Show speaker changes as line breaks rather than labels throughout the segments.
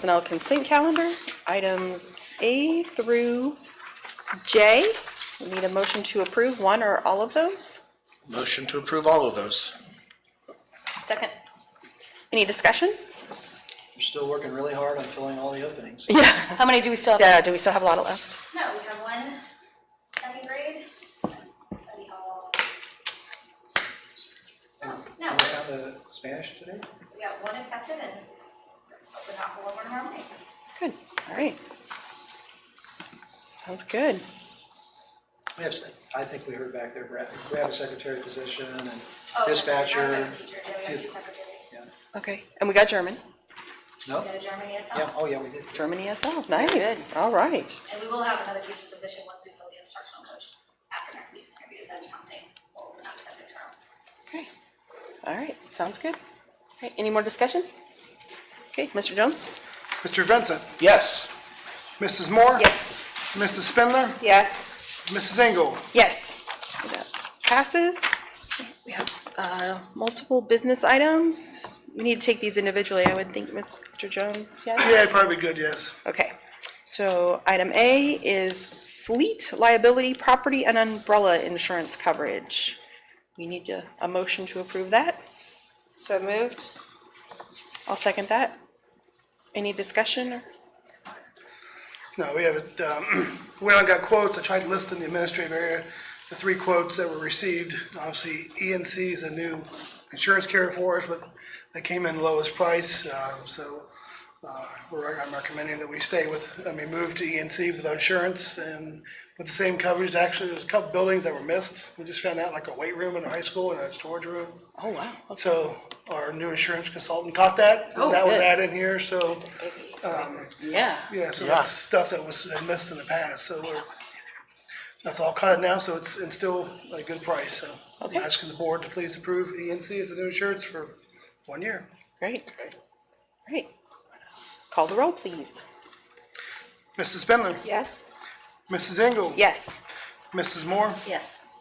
Personnel consent calendar, items A through J. We Need a motion to approve one or all of those?
Motion to approve all of those.
Second. Any discussion?
You're still working really hard on filling all the openings.
How many do we still have?
Yeah, do we still have a lot left?
No, we have one second grade, study hall. No, no,
You found the Spanish today?
we got one accepted and open up for one more tomorrow morning. Oh,
Good, all right. Sounds good.
We have, I think we heard back there, Brad, we have a secretary position and
Oh,
dispatcher.
Our second teacher, yeah, we have two
She's-
secretaries.
Yeah.
Okay, and we got German,
No?
We got a Germany
Yeah,
ESL,
oh, yeah, we did.
German ESL, nice, all right.
and we will have another teaching position once we fill the instructional coach after next week's interviews, that's something we'll not accept tomorrow.
Okay, all right, sounds good. All right, any more discussion? Okay, Mr. Jones?
Mr. Vincent?
Yes.
Mrs. Moore?
Yes.
Mrs. Spindler?
Yes.
Mrs. Engel?
Yes. That Passes. We have uh, multiple business items. We need to take these individually, I would think, Mr. Jones, yes?
Yeah, probably good, yes.
Okay. So item A is fleet liability, property, and umbrella insurance coverage. We need to- a motion to approve that. So moved. I'll second that. Any discussion? or-
No, we haven't, um, went out and got quotes, I tried to list in the administrative area the three quotes that were received. Obviously, ENC is a new insurance carrier for us, but they came in lowest price, uh, so, uh, we're, I'm recommending that we stay with, I mean, move to E ENC with our insurance and with the same coverage. Actually, there's a couple buildings that were missed, we just found out like a weight room in a high school and a storage room.
Oh, wow. Okay.
So our new insurance consultant caught that,
Oh,
that was
good.
added in here, so,
Yeah.
yeah, so that's stuff that was missed in the past, so we're, that's all caught now, so it's, it's still a good price, so. I'm
Okay.
asking the board to please approve ENC as a new insurance for one year.
Great. Great. Call the roll, please.
Mrs. Spindler?
Yes.
Mrs. Engel?
Yes.
Mrs. Moore?
Yes.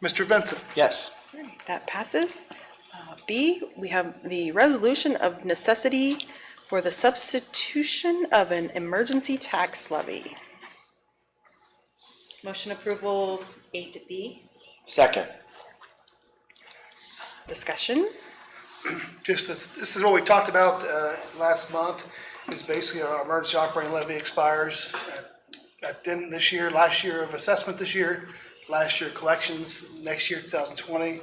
Mr. Vincent?
Yes.
Alright, That passes. Uh, B, we have the resolution of necessity for the substitution of an emergency tax levy.
Motion approval A to B?
Second.
Discussion?
just, this this is what we talked about uh, last month, is basically our emergency operating levy expires at- at the end of this year, last year of assessments this year, last year collections, next year, 2020.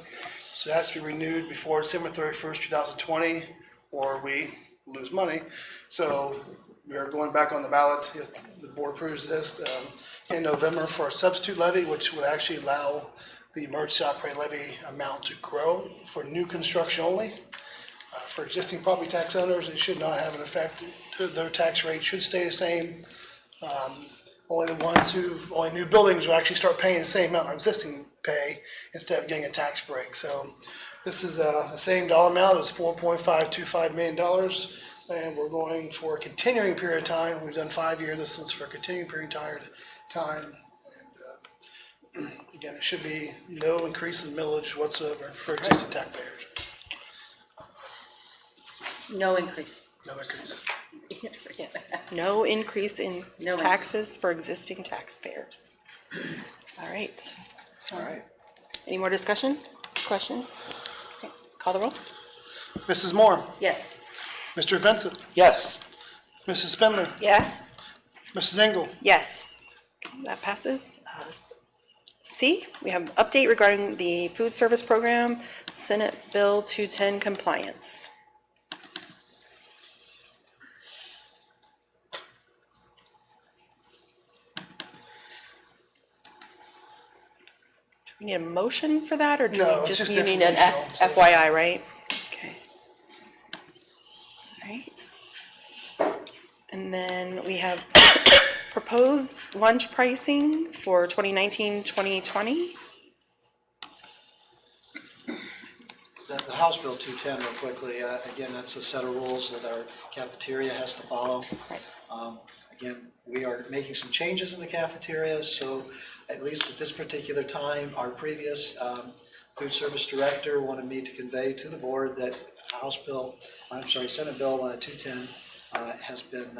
So it has to be renewed before December 31st, 2020, or we lose money. So we are going back on the ballot, if the board approves this, um, in November for a substitute levy, which would actually allow the emergency operating levy amount to grow for new construction only. Uh, For existing property tax owners, it should not have an effect, their tax rate should stay the same. Um, Only the ones who, only new buildings will actually start paying the same amount of existing pay instead of getting a tax break. So this is uh, the same dollar amount, it's four point five two five million dollars. And we're going for a continuing period of time, we've done five years, this one's for a continuing period of time- time. And, uh, Again, it should be no increase in millage whatsoever for existing taxpayers,
No increase.
no increase.
Yes.
No increase in
No increase.
taxes for existing taxpayers. All right.
All right.
Any more discussion? Questions? Okay, Call the roll?
Mrs. Moore?
Yes.
Mr. Vincent?
Yes.
Mrs. Spindler?
Yes.
Mrs. Engel?
Yes. That passes. Uh, C, we have an update regarding the food service program, Senate Bill 210 compliance. Do we need a motion for that, or do
No,
we
it's
just,
just
you need an F-
informational, so-
FYI, right? Okay. All right. And then we have proposed lunch pricing for 2019, 2020.
The, the House Bill two ten real quickly, uh, again, that's a set of rules that our cafeteria has to follow.
Right.
Um, Again, we are making some changes in the cafeteria, so at least at this particular time, our previous um, food service director wanted me to convey to the board that House Bill, I'm sorry, Senate Bill uh, 210 uh, has been